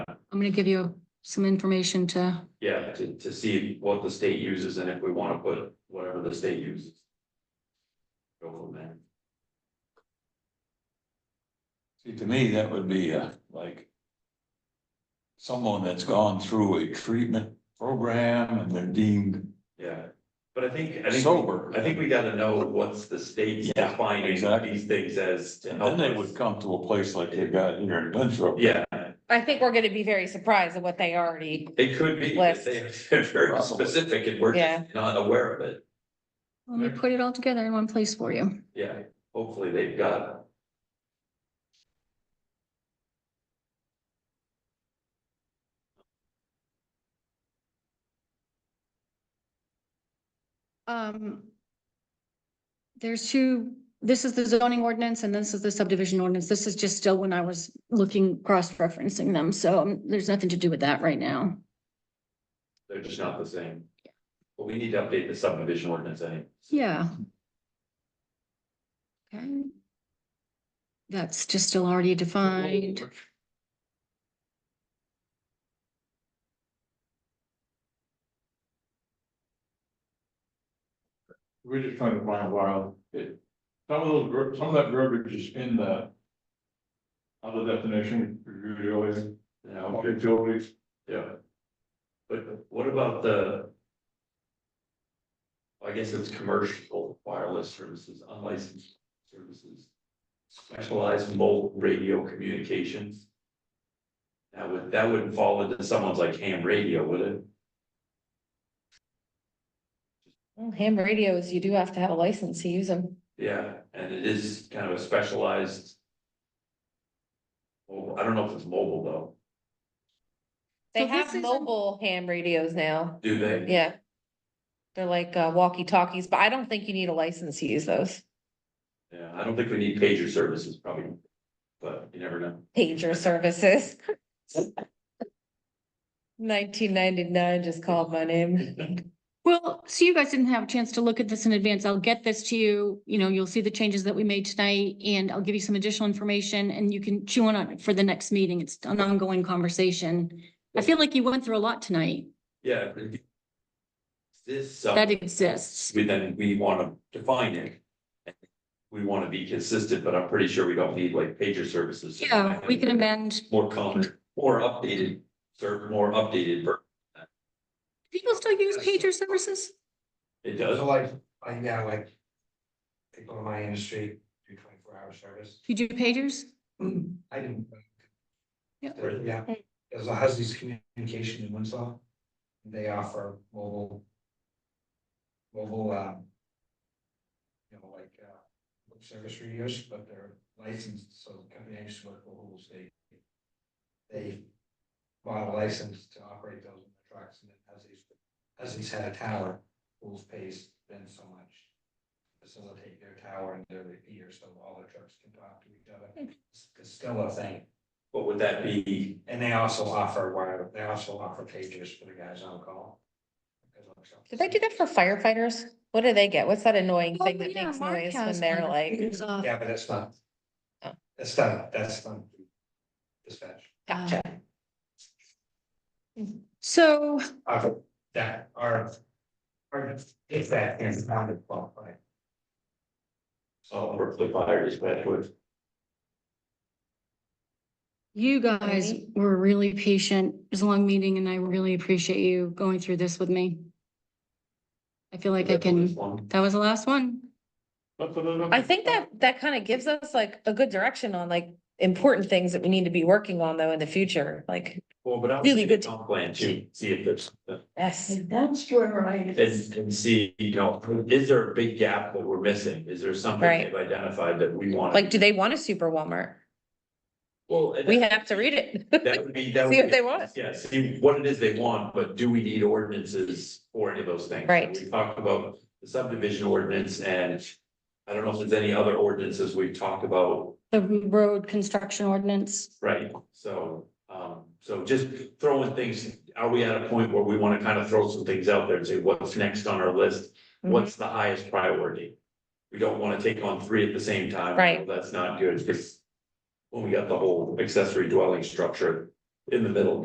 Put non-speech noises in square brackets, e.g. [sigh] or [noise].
I'm gonna give you some information to, Yeah, to, to see what the state uses and if we wanna put whatever the state uses. Go from there. See, to me, that would be uh like. Someone that's gone through a treatment program and they're deemed Yeah, but I think, I think, sober. I think we gotta know what's the state's Yeah, defining exactly. these things as to And then help they us. would come to a place like they got here in Winthrop. Yeah, I think we're gonna be very surprised at what they already, it could be, [laughs] List. they're very Probably. specific and we're Yeah. just not aware of it. let me put it all together in one place for you. Yeah, hopefully they've got. Um. There's two, this is the zoning ordinance and this is the subdivision ordinance. This is just still when I was looking, cross-referencing them, so um, there's nothing to do with that right now. They're just not the same. But we need to update the subdivision ordinance, I think. Yeah. Okay. That's just still already defined. We're just trying to find while, it, some of those, ver- some of that verbiage is in the. Other definition, reviewed earlier, You know, of utilities, Yeah. But what about the? I guess it's commercial wireless services, unlicensed services. Specialized mobile radio communications. That would, that wouldn't fall into someone's like ham radio, would it? Well, ham radios, you do have to have a license to use them. Yeah, and it is kind of a specialized. Well, I don't know if it's mobile though, They So this have isn't- mobile ham radios now, do they? yeah. They're like uh, walkie talkies, but I don't think you need a license to use those Yeah, I don't think we need pager services probably, but you never know. pager services. Nineteen ninety-nine just called my name. Well, so you guys didn't have a chance to look at this in advance. I'll get this to you, you know, you'll see the changes that we made tonight and I'll give you some additional information and you can chew on it for the next meeting. It's an ongoing conversation. I feel like you went through a lot tonight Yeah. but if- This. some- that exists. we then we wanna define it. We wanna be consistent, but I'm pretty sure we don't need like pager services. Yeah, we can amend. More common, more updated, serve more updated, ver- People still use pager services? it does, So like, like now, like. People in my industry do twenty-four hour service. You do pagers? I didn't. Yeah. So, Yeah, as long as these communication in Winslow, they offer mobile. Mobile, um. You know, like, uh, lip service radios, but they're licensed, so the company I used to work for, Hubble State. They bought a license to operate those in the trucks and then as these, as these had a tower, Hubble pays them so much. Facilitate their tower and their repeater, so all the trucks can talk to each other. It's- It's still a thing. what would that be? And they also offer wire, they also offer pagers for the guys on call. Did they do that for firefighters? What do they get? What's that annoying Oh, thing that makes noise when they're like? Yeah, but that's not. Oh. That's not, that's not. Dispatch, Gotcha. So uh, that are. Or if that is not a qualified. So we're the fire dispatch with, You guys Alright. were really patient. It was a long meeting and I really appreciate you going through this with me. I feel like I can, that was the last one. I think that that kind of gives us like a good direction on like important things that we need to be working on though in the future, like, Well, but I'm. Really good. comp Plan to see if there's, yes. and, and see, you know, is there a big gap that we're missing? Is there something Right. they've identified that we want? Like, do they want a super Walmart? Well, and We that- have to read it. [laughs] That would be, that would See be. what they want. Yeah, see what it is they want, but do we need ordinances for any of those things? Right. We talked about the subdivision ordinance and I don't know if there's any other ordinances we've talked about, The road construction ordinance. right? So, um, so just throwing things, are we at a point where we want to kind of throw some things out there and say, what's next on our list? Mm-hmm. What's the highest priority? We don't want to take on three at the same time. Right. That's not good because when we got the whole accessory dwelling structure in the middle,